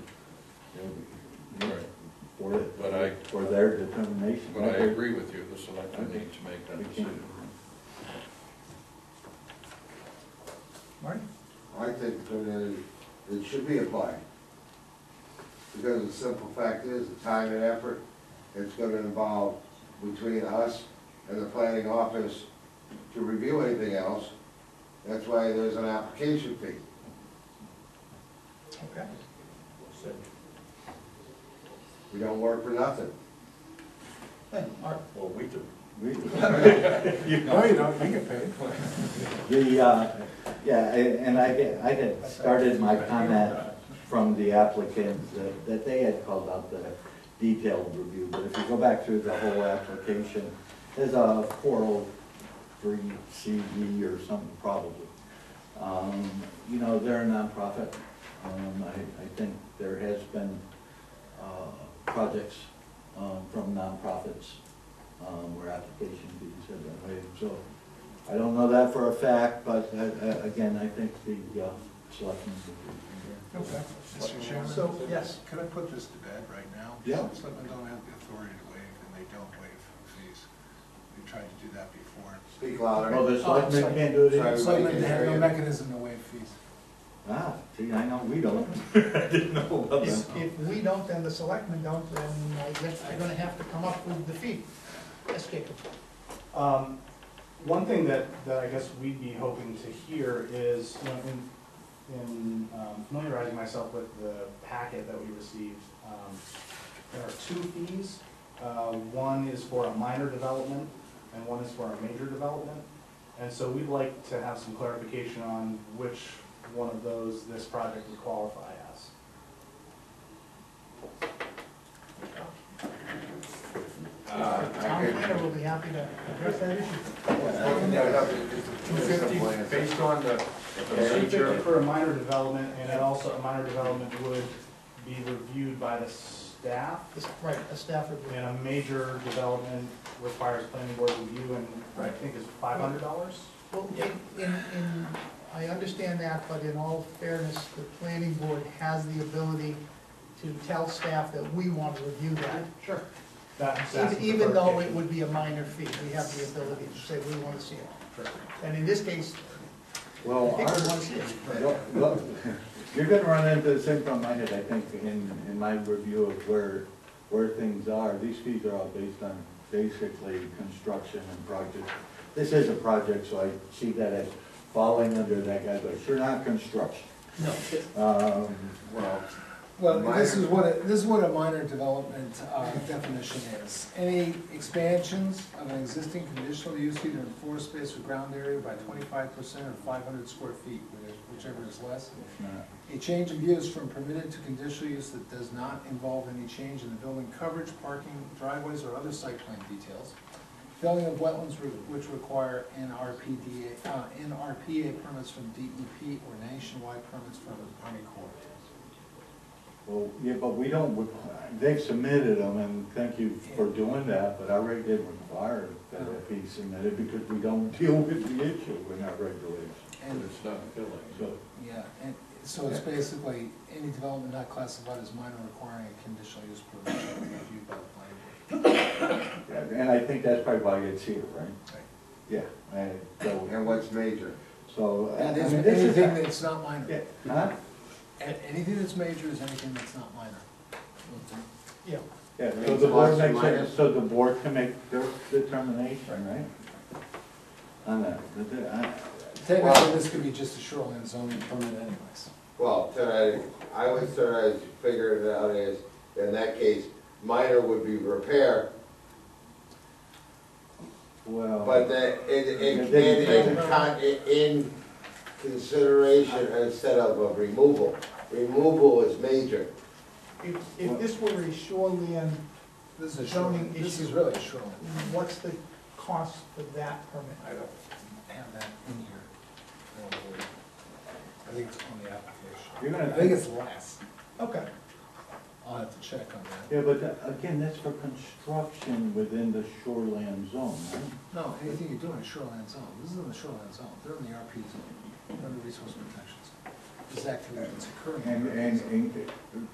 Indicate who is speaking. Speaker 1: or,
Speaker 2: But I,
Speaker 1: or their determination.
Speaker 2: but I agree with you, the selectmen need to make
Speaker 1: We
Speaker 2: that
Speaker 1: can't-
Speaker 2: decision.
Speaker 3: Marty?
Speaker 4: I think that it, it should be applied. Because the simple fact is, the time and effort it's gonna involve between us and the planning office to review anything else, that's why there's an application fee.
Speaker 3: Okay.
Speaker 4: We don't work for nothing.
Speaker 3: Hey, Mark.
Speaker 5: Well, we do.
Speaker 1: we-
Speaker 3: No, you don't, you get paid.
Speaker 1: The, uh, yeah, and and I get, I had started my comment from the applicants that, that they had called out the detailed review, but if you go back through the whole application, there's a four oh three CV or something probably. Um, you know, they're a nonprofit, um, I, I think there has been, uh, projects, um, from nonprofits, um, where application fees have been waived, so I don't know that for a fact, but, uh, uh, again, I think the, uh, selectmen would be
Speaker 3: Okay.
Speaker 6: Mr. Chairman?
Speaker 3: So, yes.
Speaker 6: Could I put this to bed right now?
Speaker 1: Yeah.
Speaker 6: Selectmen don't have the authority to waive, and they don't waive fees. We tried to do that before.
Speaker 4: Speak louder.
Speaker 1: Well, the selectmen can't do it
Speaker 4: Sorry.
Speaker 1: either.
Speaker 3: Selectmen have no mechanism to waive fees.
Speaker 1: Ah, see, I know we don't. I didn't know about that.
Speaker 3: If if we don't, then the selectmen don't, then I guess I'm gonna have to come up with the fee. Yes, Jacob?
Speaker 7: Um, One thing that, that I guess we'd be hoping to hear is, you know, in, in um, familiarizing myself with the packet that we received, um, there are two fees. Uh, One is for a minor development, and one is for a major development. And so we'd like to have some clarification on which one of those this project would qualify as.
Speaker 4: Uh, I
Speaker 3: Town
Speaker 4: could-
Speaker 3: planner will be happy to address that issue.
Speaker 4: Yeah, I can- yeah, no, it's- it's-
Speaker 2: Two
Speaker 4: it's
Speaker 2: fifty,
Speaker 4: simple answer.
Speaker 2: based on the
Speaker 7: Particularly
Speaker 2: procedure,
Speaker 7: For a minor development, and it also, a minor development would be reviewed by the staff,
Speaker 3: This- Right, a staff review.
Speaker 7: and a major development requires planning board review, and I think is five hundred dollars?
Speaker 3: Well, in, in, in- I understand that, but in all fairness, the planning board has the ability to tell staff that we want to review that. Sure. Even though it would be a minor fee, we have the ability to say we want to see it. And in this case, I
Speaker 1: Well,
Speaker 3: think we
Speaker 1: our-
Speaker 3: want to see it.
Speaker 1: well, well, you're gonna run into the same problem I had, I think, in, in my review of where, where things are. These fees are all based on basically construction and project. This is a project, so I see that as falling under that guy, but you're not construction.
Speaker 3: No.
Speaker 1: Um,
Speaker 4: Well,
Speaker 8: Well, this is
Speaker 4: Minor.
Speaker 8: what, a- this is what a minor development uh, definition is. Any expansions of an existing conditional use either in floor space or ground area by twenty-five percent or five hundred square feet, which- whichever is less.
Speaker 1: it's not-
Speaker 8: A change of use from permitted to conditional use that does not involve any change in the building coverage, parking, driveways, or other site plan details. Filling of wetlands re- which require NRPDA, uh, NRPA permits from DEP or nationwide permits from the Army Corps.
Speaker 1: Well, yeah, but we don't, requ- they've submitted them, and thank you for doing that, but our reg didn't require that it be submitted because we don't deal with the issue in our regulations.
Speaker 2: but
Speaker 8: And
Speaker 2: it's not filling.
Speaker 1: So,
Speaker 8: Yeah, and so it's basically any development not classified as minor requiring a conditional use permit shall be reviewed by the planning board.
Speaker 1: and I think that's probably why it's here, right?
Speaker 8: Right.
Speaker 1: Yeah, I- so,
Speaker 4: and what's major?
Speaker 1: so, uh, I
Speaker 8: That is,
Speaker 1: mean, this is.
Speaker 8: anything that's not minor,
Speaker 1: Yeah, Huh?
Speaker 8: A- anything that's major is anything that's not minor.
Speaker 3: Yeah,
Speaker 1: Yeah, so
Speaker 4: It's
Speaker 1: the board
Speaker 4: plus and
Speaker 1: makes, it-
Speaker 4: minus.
Speaker 1: so the board can make their determination, right? On that, but the- I-
Speaker 8: Technically, this could be just a shoreline zoning permit anyways.
Speaker 4: Well, tonight, I was trying to figure it out as, in that case, minor would be repair,
Speaker 1: well.
Speaker 4: but that, it,
Speaker 1: Yeah,
Speaker 4: it
Speaker 1: they-
Speaker 4: can in, con- in- in consideration instead of a removal. Removal is major.
Speaker 3: if, if this were a shoreline,
Speaker 8: This is a
Speaker 3: Zoning
Speaker 8: shoreline, this is
Speaker 3: issue.
Speaker 8: really a shoreline.
Speaker 3: what's the cost for that permit?
Speaker 8: I don't have that in here. I don't believe. I think it's on the application.
Speaker 1: You're gonna-
Speaker 8: I think it's less.
Speaker 3: Okay,
Speaker 8: I'll have to check on that.
Speaker 1: Yeah, but tha- again, that's for construction within the shoreland zone, right?
Speaker 8: No, anything you do in a shoreline zone, this is in the shoreline zone, they're in the RP zone, they're in the resource protection zone. This activity that's occurring. in
Speaker 1: And,
Speaker 8: the RP
Speaker 1: and,
Speaker 8: zone.
Speaker 1: and